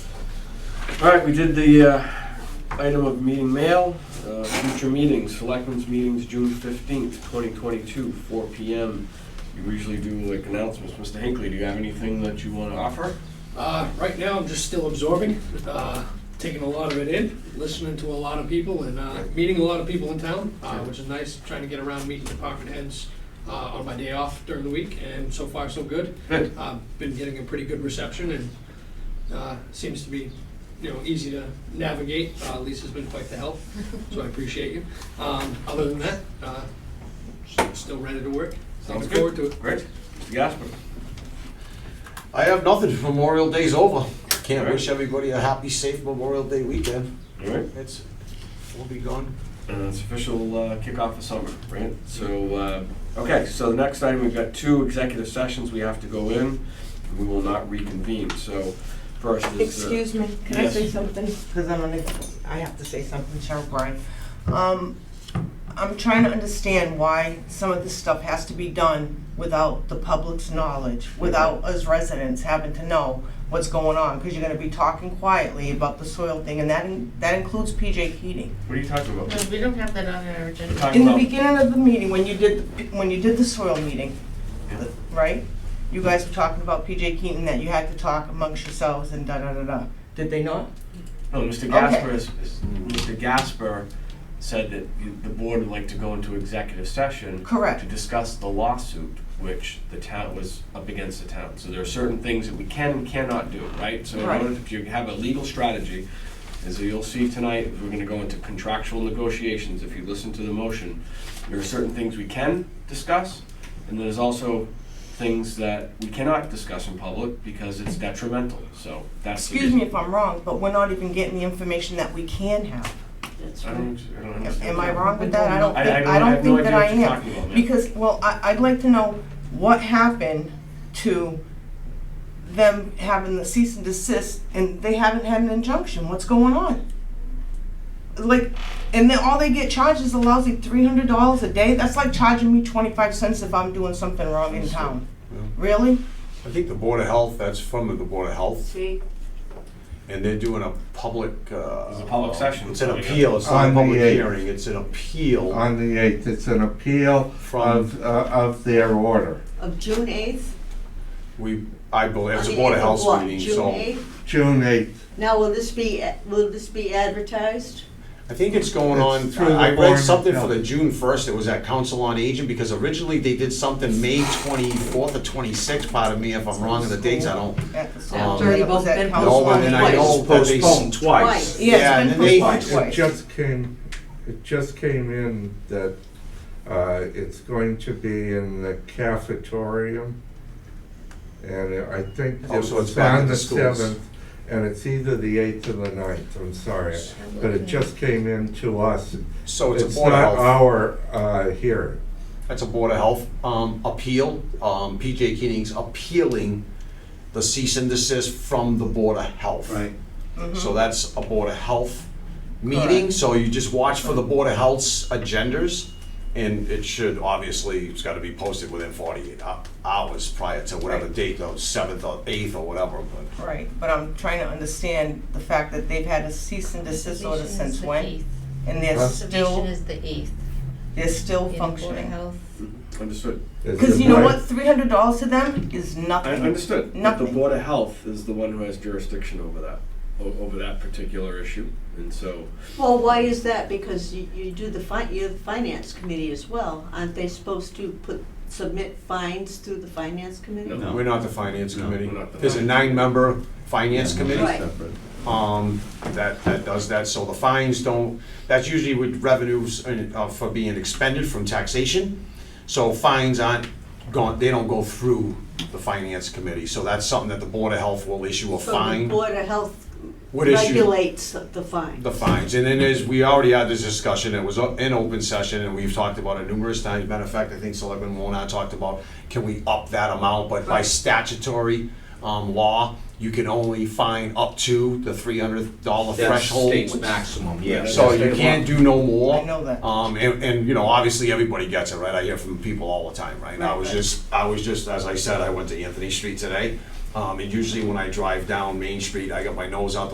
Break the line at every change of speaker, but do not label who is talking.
All right, we did the uh, item of meeting mail, Uh, future meetings, selectmen's meetings, June 15th, 2022, 4 PM. You usually do like announcements. Mr. Hinckley, do you have anything that you want to offer?
Uh, right now, I'm just still absorbing, uh, taking a lot of it in, listening to a lot of people and, uh, meeting a lot of people in town, uh, which is nice, trying to get around meeting department heads, uh, on my day off during the week, and so far, so good.
Good.
Uh, been getting a pretty good reception and, uh, seems to be, you know, easy to navigate. Uh, Lisa's been quite the help, so I appreciate you. Um, other than that, uh, s- still ready to work.
Sounds
Looking forward to it.
Great. Mr. Gasper?
I have nothing. Memorial Day's over. Can't
Alright.
wish everybody a happy, safe Memorial Day weekend.
All right.
It's, we'll be gone.
Uh, It's official uh, kickoff of summer, right? So, uh, okay, so the next item, we've got two executive sessions we have to go in. We will not reconvene, so first is. uh,
Excuse me, can I say
Yes.
something? Because I'm on, the- I have to say something, Cheryl Bryan. Um, I'm trying to understand why some of this stuff has to be done without the public's knowledge, without us residents having to know what's going on, because you're gonna be talking quietly about the soil thing, and that, in- that includes PJ Keating.
What are you talking about?
No, we don't have that on our agenda.
We're talking
In the
about-
beginning of the meeting, when you did, the- when you did the soil meeting, right? You guys were talking about PJ Keating, that you had to talk amongst yourselves and da-da-da-da. Did they not?
No, Mr. Gasper is, is- Mr. Gasper said that you- the board would like to go into executive session
Correct.
to discuss the lawsuit, which the town was up against the town. So there are certain things that we can and cannot do, right? So in
Right.
order to, you have a legal strategy, as you'll see tonight, we're gonna go into contractual negotiations, if you listen to the motion. There are certain things we can discuss, and there's also things that we cannot discuss in public because it's detrimental, so that's. the
Excuse me
reason-
if I'm wrong, but we're not even getting the information that we can have.
That's
I
right.
don't, I don't
Am-
understand.
Am I wrong with that? I don't
I- I
think,
don't-
I
I
don't
have no
think that
idea
I
what
am.
you're talking about, ma'am.
Because, well, I, I'd like to know what happened to them having the cease and desist and they haven't had an injunction. What's going on? Like, and then all they get charged is a lousy three hundred dollars a day. That's like charging me twenty-five cents if I'm doing something wrong in town. Really?
I think the Board of Health, that's from the Board of Health,
See,
and they're doing a public, uh.
It's a public session.
It's an appeal. It's not a
On the
public
eighth.
hearing. It's an appeal
on the 8th. It's an appeal
from,
of, uh, of their order.
Of June eighth?
we, I believe, it's a Board of Health meeting,
June
so.
eighth?
June 8th.
Now, will this be, will this be advertised?
I think it's going on,
It's through
I read
the Board of
something for
Health.
the June first, it was at Council on Aging, because originally they did something May twenty-fourth or twenty-sixth, pardon me if I'm wrong in the dates, I don't
At the
Um,
school. That was at
Been
council
know,
postponed
and then I
twice.
know that they.
postponed twice.
Twice.
Yeah,
Yeah,
it's
and
been
then they-
postponed twice.
It just came, it just came in that uh, it's going to be in the cafeteria. And I think it
Oh, so it's
was
back at
on
the
the
schools.
7th, and it's either the 8th or the 9th, I'm sorry. But it just came in to us.
So it's a
It's
Board of
not
Health.
our uh, hearing.
That's a Board of Health um, appeal. Um, PJ Keating's appealing the cease and desist from the Board of Health.
Right.
So that's a Board of Health meeting, so you just watch for the Board of Health's agendas. And it should, obviously, it's gotta be posted within forty-eight hou- hours prior to whatever date, though, seventh or eighth or whatever, but.
Right, but I'm trying to understand the fact that they've had a cease and desist order
Submission is
since
the
when?
eighth.
And they're
Huh?
Submission
still,
is the eighth.
they're still
in Board of
functioning.
Health.
Understood.
Is
Because
it
you know
right?
what, three hundred dollars to them is
I
nothing.
understood. But the
Nothing.
Board of Health is the one who has jurisdiction over that, o- over that particular issue. And so,
Well, why is that? Because you, you do the fi, you're the finance committee as well. Aren't they supposed to put, submit fines through the finance committee?
No.
We're not the Finance Committee.
we're not the
There's a nine-member Finance Committee.
Right.
um, that, that does that, so the fines don't, that's usually with revenues uh, for being expended from taxation. So fines aren't gone, they don't go through the finance committee, so that's something that the Board of Health will issue a
So the
fine.
Board of Health
Would issue
regulates the fine.
the fines, and then there's, we already had this discussion, it was o- in open session, and we've talked about it numerous times. Matter of fact, I think Selectman Warnock talked about, can we up that amount, but by statutory, um, law, you can only fine up to the three hundred dollar
That's
threshold.
state's maximum, yeah.
So you can't do no more.
I know that.
Um, and, and, you know, obviously, everybody gets it, right? I hear from people all the time, right? And I was just, I was just, as I said, I went to Anthony Street today. Um, and usually when I drive down Main Street, I got my nose out the